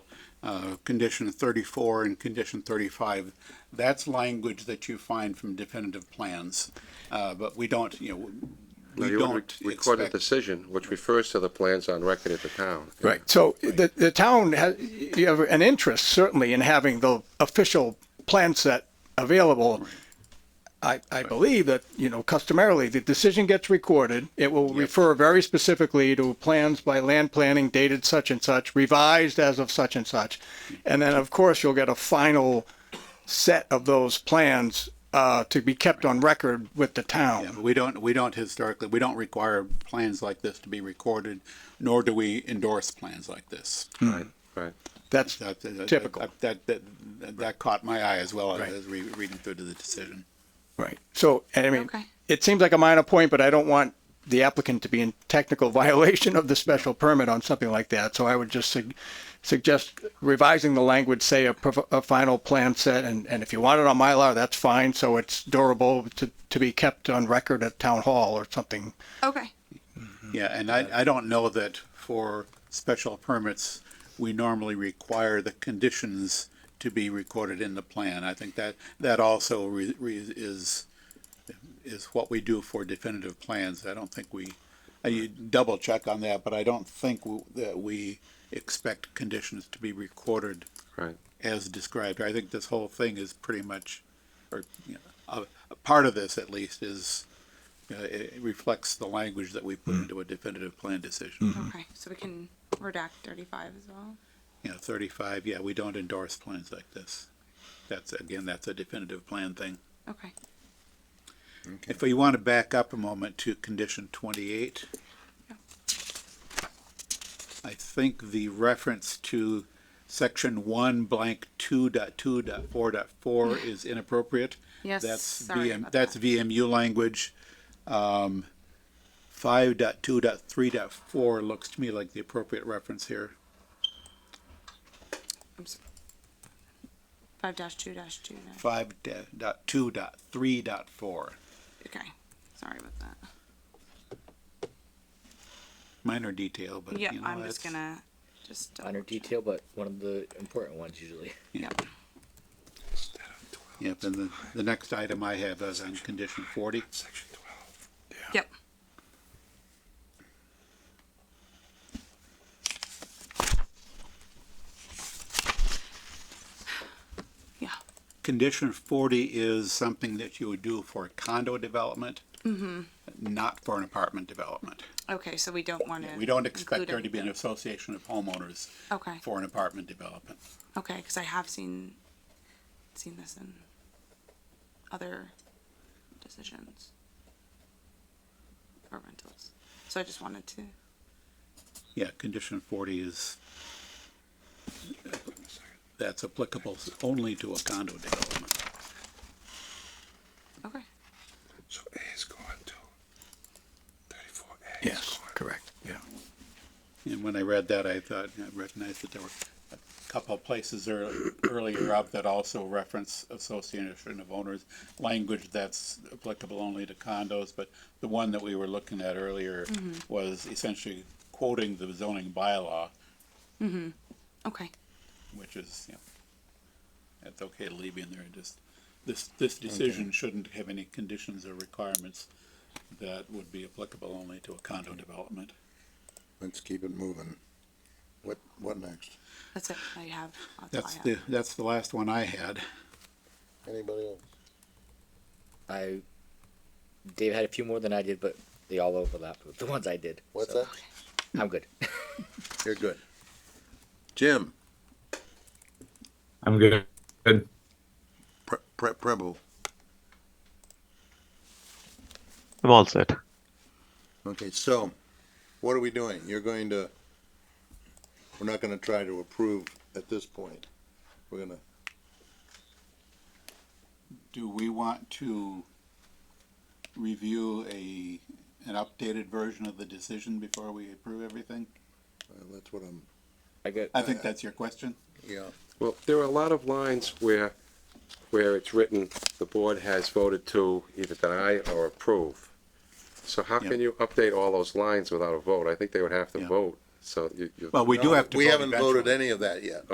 uh, condition thirty-four and condition thirty-five, that's language that you find from definitive plans. Uh, but we don't, you know, No, we you would re- don't Record a expect. decision which refers to the plans on record at the town. Right. So the, the town has, you have an interest certainly in having the official plan set available. I, I believe that, you know, customarily, the decision gets recorded. It will refer very specifically to plans by land planning dated such and such, revised as of such and such. And then, of course, you'll get a final set of those plans, uh, to be kept on record with the Yeah, town. but We don't, we don't historically, we don't require plans like this to be recorded, nor do we endorse plans like this. Right, right. That's That- that- Typical. That, that, that- that caught my eye as well as re- reading through to the decision. Right. So, and I mean, Okay. it seems like a minor point, but I don't want the applicant to be in technical violation of the special permit on something like that. So I would just sug- suggest revising the language, say a, prov- a final plan set, and, and if you want it on Mylar, that's fine. So it's durable to, to be kept on record at town hall or something. Okay. Yeah, and I, I don't know that for special permits, we normally require the conditions to be recorded in the plan. I think that, that also re- re- is, is what we do for definitive plans. I don't think we, I double check on that, but I don't think w- that we expect conditions to be recorded Right. as described. I think this whole thing is pretty much, or, you know, a, a part of this at least is, uh, it it reflects the language that we put into a definitive plan decision. Okay. So we can redact 35 as well. You know, thirty-five, yeah, we don't endorse plans like this. That's, again, that's a definitive plan thing. Okay. If we want to back up a moment to condition twenty-eight. Yeah. I think the reference to section one blank two dot two dot four dot four is inappropriate. Yes, That's sorry VM about That's that. VMU language. Um, five dot two dot three dot four looks to me like the appropriate reference here. I'm s 5 dash 2 dash 2. dash- Five da- dot two dot three dot four. Okay. Sorry about that. Minor detail, but Yeah. you know, I'm just that's- gonna just. double minor check. detail, but one of the important ones usually. Yep. Yep, and the, the next item I have is on condition forty. Yep. Yeah. Condition forty is something that you would do for a condo development. Not for an apartment development. Okay. So we don't want to. We don't expect there to be an association of homeowners Okay. for an apartment development. Okay, because I have seen seen this in other decisions or rentals. So I just wanted to. Yeah, condition forty is, that's applicable only to a condo development. Okay. So A is gone too. Thirty-four A is Yes, gone. correct. Yeah. And when I read that, I thought, I recognized that there were a couple of places ear- earlier up that also reference association of owners, language that's applicable only to condos, but the one that we were looking at earlier was essentially quoting the zoning bylaw, Okay. which is, you know, that's okay to leave in there, just, this, this decision shouldn't have any conditions or requirements that would be applicable only to a condo development. Let's keep it moving. What, what next? That's it. I have. all I That's have. the, that's the last one I had. Anybody else? I, Dave had a few more than I did, but they all overlapped with the ones I did. What's so that? I'm good. You're good. Jim, I'm good. Good. Pre- Pre- Preble, I'm all set. okay, so what are we doing? You're going to, we're not gonna try to approve at this point. We're gonna, uh, Do we want to review a, an updated version of the decision before we approve everything? uh, that's what I'm, I got. I think that's your question. yeah, Well, there are a lot of lines where, where it's written, the board has voted to either deny or approve. So how can you update all those lines without a vote? I think they would have to Yeah. vote, so you. you- Well, we do have to. we vote haven't voted eventually. any of that yet.